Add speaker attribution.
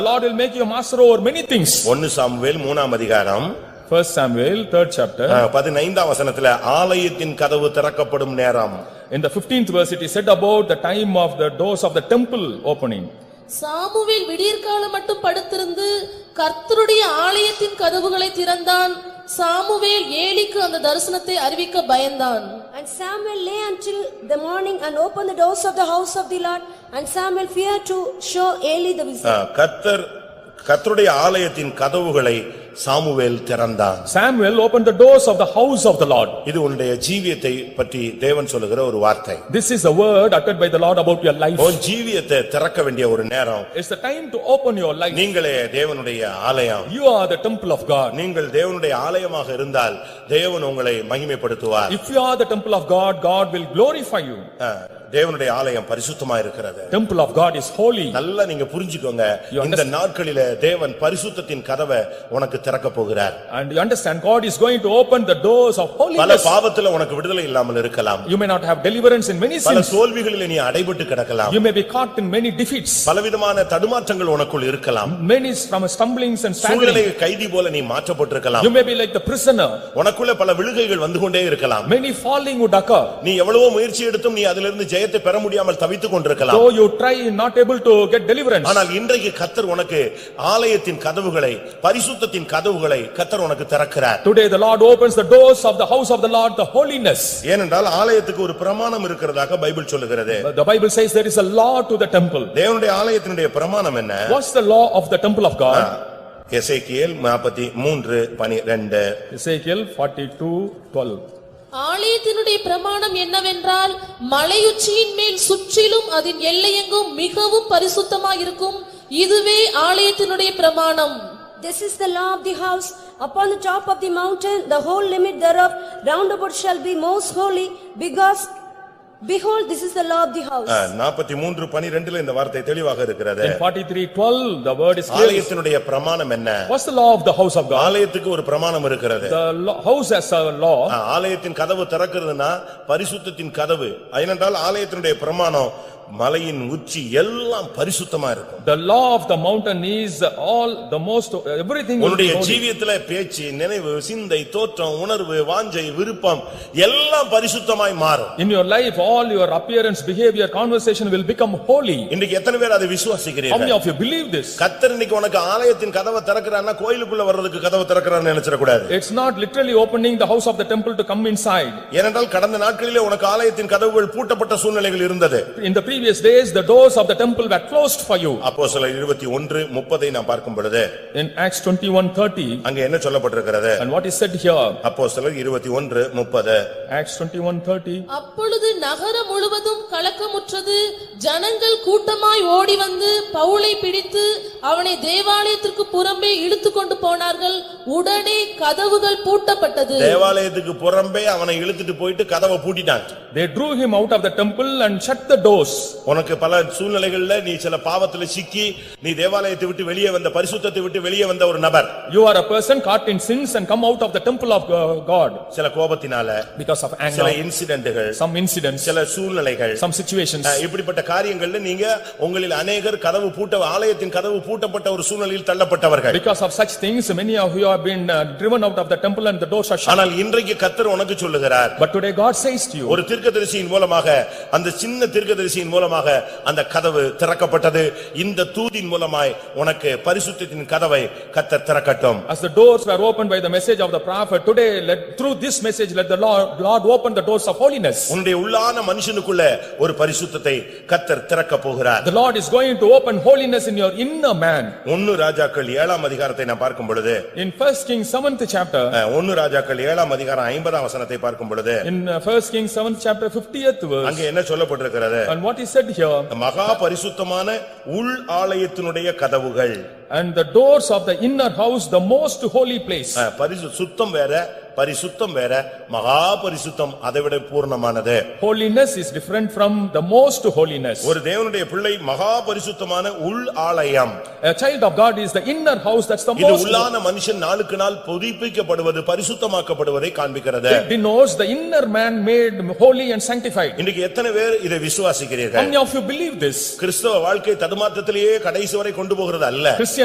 Speaker 1: The Lord will make you master over many things.
Speaker 2: ஒன்னு Samuel மூணாம் அதிகாரம்
Speaker 1: First Samuel, third
Speaker 2: ஆ,
Speaker 1: chapter,
Speaker 2: பதினைந்தாம் வசனத்துல ஆலயத்தின் கதவு திறக்கப்படும் நேரம்
Speaker 1: in the fifteenth verse, it is said about the time of the doors of the temple opening.
Speaker 3: Samuel விடியற்காலம் மட்டும் படுத்திருந்து கர்த்தருடைய ஆலயத்தின் கதவுகளை திறந்தான் சாமுவேல் ஏலிக்கு அந்த தரிசனத்தை அறிவிக்க பயந்தான்
Speaker 4: And Samuel lay until the morning and opened the doors of the house of the Lord. And Samuel feared to show Eli the vision.
Speaker 2: ஆ, கர்த்தர் கர்த்தருடைய ஆலயத்தின் கதவுகளை சாமுவேல் திறந்தான்
Speaker 1: Samuel opened the doors of the house of the Lord.
Speaker 2: இது உன்னுடைய ஜீவியத்தை பற்றி தேவன் சொல்லுகிற ஒரு வார்த்தை
Speaker 1: This is the word uttered by the Lord about your life.
Speaker 2: உன் ஜீவியத்தை திறக்க வேண்டிய ஒரு நேரம்
Speaker 1: It's the time to open your life.
Speaker 2: நீங்களே தேவனுடைய ஆலயம்
Speaker 1: You are the temple of God.
Speaker 2: நீங்கள் தேவனுடைய ஆலயமாக இருந்தால் தேவன் உங்களை மகிமைப்படுத்துவார்
Speaker 1: If you are the temple of God, God will glorify you.
Speaker 2: ஆ, தேவனுடைய ஆலயம் பரிசுத்தமா இருக்கிறது
Speaker 1: Temple of God is holy.
Speaker 2: நல்லா நீங்க புரிஞ்சுக்கோங்க
Speaker 1: You understand?
Speaker 2: இந்த நாட்களில தேவன் பரிசுத்தத்தின் கதவை உனக்கு திறக்க போகிறார்
Speaker 1: And you understand, God is going to open the doors of
Speaker 2: பல
Speaker 1: holiness.
Speaker 2: பாவத்துல உனக்கு விடுதலை இல்லாமல் இருக்கலாம்
Speaker 1: You may not have deliverance in many
Speaker 2: பல
Speaker 1: sins.
Speaker 2: தோல்விகளில நீ அடைபட்டு கிடக்கலாம்
Speaker 1: You may be caught in many defeats.
Speaker 2: பலவிதமான தடுமாற்றங்கள் உனக்குள் இருக்கலாம்
Speaker 1: Many from stumblings and
Speaker 2: சூழ்நிலை
Speaker 1: staggering.
Speaker 2: கைதி போல நீ மாற்றப்பட்டிருக்கலாம்
Speaker 1: You may be like the prisoner.
Speaker 2: உனக்குள்ள பல விழுகைகள் வந்து கொண்டே இருக்கலாம்
Speaker 1: Many falling would occur.
Speaker 2: நீ எவ்வளவோ முயற்சி எடுத்தும் நீ அதிலிருந்து ஜெயத்தை பெற முடியாமல் தவித்துக் கொண்டிருக்கலாம்
Speaker 1: Though you try, not able to get deliverance.
Speaker 2: ஆனால் இன்றைக்கு கத்தர் உனக்கு ஆலயத்தின் கதவுகளை பரிசுத்தத்தின் கதவுகளை கத்தர் உனக்கு திறக்கிறார்
Speaker 1: Today the Lord opens the doors of the house of the Lord, the holiness.
Speaker 2: ஏனென்றால் ஆலயத்துக்கு ஒரு பிரமாணம் இருக்கிறதாக பைபிள் சொல்லுகிறது
Speaker 1: But The Bible says there is a law to the temple.
Speaker 2: தேவனுடைய ஆலயத்தினுடைய பிரமாணம் என்ன
Speaker 1: What's the law of the temple of
Speaker 2: Ah.
Speaker 1: God?
Speaker 2: எசேக்கியேல் நாற்பத்தி மூன்று பனிரெண்டு
Speaker 1: Ezekiel forty-two twelve.
Speaker 3: ஆலயத்தினுடைய பிரமாணம் என்னவென்றால் மலையுச்சியின் மேல் சுற்றிலும் அதன் எல்லையெங்கும் மிகவும் பரிசுத்தமாயிருக்கும் இதுவே ஆலயத்தினுடைய பிரமாணம்
Speaker 4: This is the law of the house. Upon the top of the mountain, the whole limit thereof round about shall be most holy because behold, this is the law of the house.
Speaker 2: நாற்பத்தி மூன்று பனிரெண்டுல இந்த வார்த்தை தெளிவாக இருக்கிறது
Speaker 1: In forty-three twelve, the word is clear.
Speaker 2: ஆலயத்தினுடைய பிரமாணம் என்ன
Speaker 1: What's the law of the house of God?
Speaker 2: ஆலயத்துக்கு ஒரு பிரமாணம் இருக்கிறது
Speaker 1: The lo- house has a law.
Speaker 2: ஆ, ஆலயத்தின் கதவு திறக்கிறதுனா பரிசுத்தத்தின் கதவு ஏனென்றால் ஆலயத்தினுடைய பிரமாணம் மலையின் உச்சி எல்லாம் பரிசுத்தமா இருக்கும்
Speaker 1: The law of the mountain is all the most, everything will be
Speaker 2: உன்னுடைய
Speaker 1: holy.
Speaker 2: ஜீவியத்துல பேச்சு நினைவு சிந்தை தோற்றம் உணர்வு வாஞ்சை விருப்பம் எல்லாம் பரிசுத்தமாய் மாறும்
Speaker 1: In your life, all your appearance, behavior, conversation will become holy.
Speaker 2: இன்னைக்கு எத்தனை பேர் அதை
Speaker 1: How many
Speaker 2: விசுவாசிக்கிறீர்கள்
Speaker 1: of you believe this?
Speaker 2: கத்தர் இன்னைக்கு உனக்கு ஆலயத்தின் கதவை திறக்கிறான்னா கோயிலுக்குள்ள வர்றதுக்கு கதவை திறக்கிறான்னு நினைச்சிடக்கூடாது
Speaker 1: It's not literally opening the house of the temple to come inside.
Speaker 2: ஏனென்றால் கடந்த நாட்களிலே உனக்கு ஆலயத்தின் கதவுகள் பூட்டப்பட்ட சூழ்நிலைகள் இருந்தது
Speaker 1: In the previous days, the doors of the temple were closed for you.
Speaker 2: அப்போ சில இருபத்தி ஒன்று முப்பதை நான் பார்க்கும் பொழுது
Speaker 1: In Acts twenty-one thirty,
Speaker 2: அங்க என்ன சொல்லப்பட்டிருக்கிறது
Speaker 1: and what is said here,
Speaker 2: அப்போ சிலர் இருபத்தி ஒன்று முப்பது
Speaker 1: Acts twenty-one thirty.
Speaker 3: அப்பொழுது நகரம் முழுவதும் கலக்கமுற்றது ஜனங்கள் கூட்டமாய் ஓடி வந்து பவுலை பிடித்து அவனை தேவாலயத்திற்கு புறம்பே இழுத்து கொண்டு போனார்கள் உடனே கதவுகள் பூட்டப்பட்டது
Speaker 2: தேவாலயத்துக்கு புறம்பே அவனை இழுத்துட்டு போயிட்டு கதவை பூட்டிட்டாங்க
Speaker 1: They drew him out of the temple and shut the doors.
Speaker 2: உனக்கு பல சூழ்நிலைகள்ல நீ சில பாவத்துல சிக்கி நீ தேவாலயத்தை விட்டு வெளியே வந்த பரிசுத்தத்தை விட்டு வெளியே வந்த ஒரு நபர்
Speaker 1: You are a person caught in sins and come out of the temple of uh, God
Speaker 2: சில கோபத்தினால
Speaker 1: because of
Speaker 2: சில
Speaker 1: anger,
Speaker 2: இன்சிடென்ட்கள்
Speaker 1: some incidents,
Speaker 2: சில சூழ்நிலைகள்
Speaker 1: some situations.
Speaker 2: அஹ், இப்படிப்பட்ட காரியங்கள்ல நீங்க உங்களில் அநேகர் கதவு பூட்ட ஆலயத்தின் கதவு பூட்டப்பட்ட ஒரு சூழ்நிலையில் தள்ளப்பட்டவர்கள்
Speaker 1: Because of such things, many of you have been uh, driven out of the temple and the doors are shut.
Speaker 2: ஆனால் இன்றைக்கு கத்தர் உனக்கு சொல்லுகிறார்
Speaker 1: But today God says to you,
Speaker 2: ஒரு தீர்க்கதரிசியின் மூலமாக அந்த சின்ன தீர்க்கதரிசியின் மூலமாக அந்த கதவு திறக்கப்பட்டது இந்த தூதின் மூலமாய் உனக்கு பரிசுத்தத்தின் கதவை கத்தர் திறக்கட்டும்
Speaker 1: as the doors were opened by the message of the prophet, today let, through this message, let the Lord, Lord open the doors of holiness.
Speaker 2: உன்னுடைய உள்ளான மனுஷனுக்குள்ள ஒரு பரிசுத்தத்தை கத்தர் திறக்க போகிறார்
Speaker 1: The Lord is going to open holiness in your inner man.
Speaker 2: ஒன்னு ராஜாக்கள் ஏழாம் அதிகாரத்தை நான் பார்க்கும் பொழுது
Speaker 1: In first Kings seventh chapter,
Speaker 2: அஹ், ஒன்னு ராஜாக்கள் ஏழாம் அதிகாரம் ஐம்பதாம் வசனத்தை பார்க்கும் பொழுது
Speaker 1: in uh, first Kings seventh chapter fiftieth verse,
Speaker 2: அங்க என்ன சொல்லப்பட்டிருக்கிறது
Speaker 1: and what is said here,
Speaker 2: மகா பரிசுத்தமான உள் ஆலயத்தினுடைய கதவுகள்
Speaker 1: and the doors of the inner house, the most holy place.
Speaker 2: அஹ், பரிசு சுத்தம் வேற பரிசுத்தம் வேற மகா பரிசுத்தம் அதைவிட பூர்ணமானது
Speaker 1: Holiness is different from the most holiness.
Speaker 2: ஒரு தேவனுடைய பிள்ளை மகா பரிசுத்தமான உள் ஆலயம்
Speaker 1: A child of God is the inner house, that's the
Speaker 2: இது
Speaker 1: most.
Speaker 2: உள்ளான மனுஷன் நாளுக்கு நாள் புதுப்பிக்கப்படுவது பரிசுத்தமாக்கப்படுவதை காண்பிக்கிறது
Speaker 1: It denotes the inner man made holy and sanctified.
Speaker 2: இன்னைக்கு எத்தனை பேர் இதை விசுவாசிக்கிறீர்கள்
Speaker 1: How many of you believe this?
Speaker 2: கிறிஸ்தவ வாழ்க்கை தடுமாற்றத்திலேயே கடைசி வரை கொண்டு போகிறது அல்ல
Speaker 1: Christian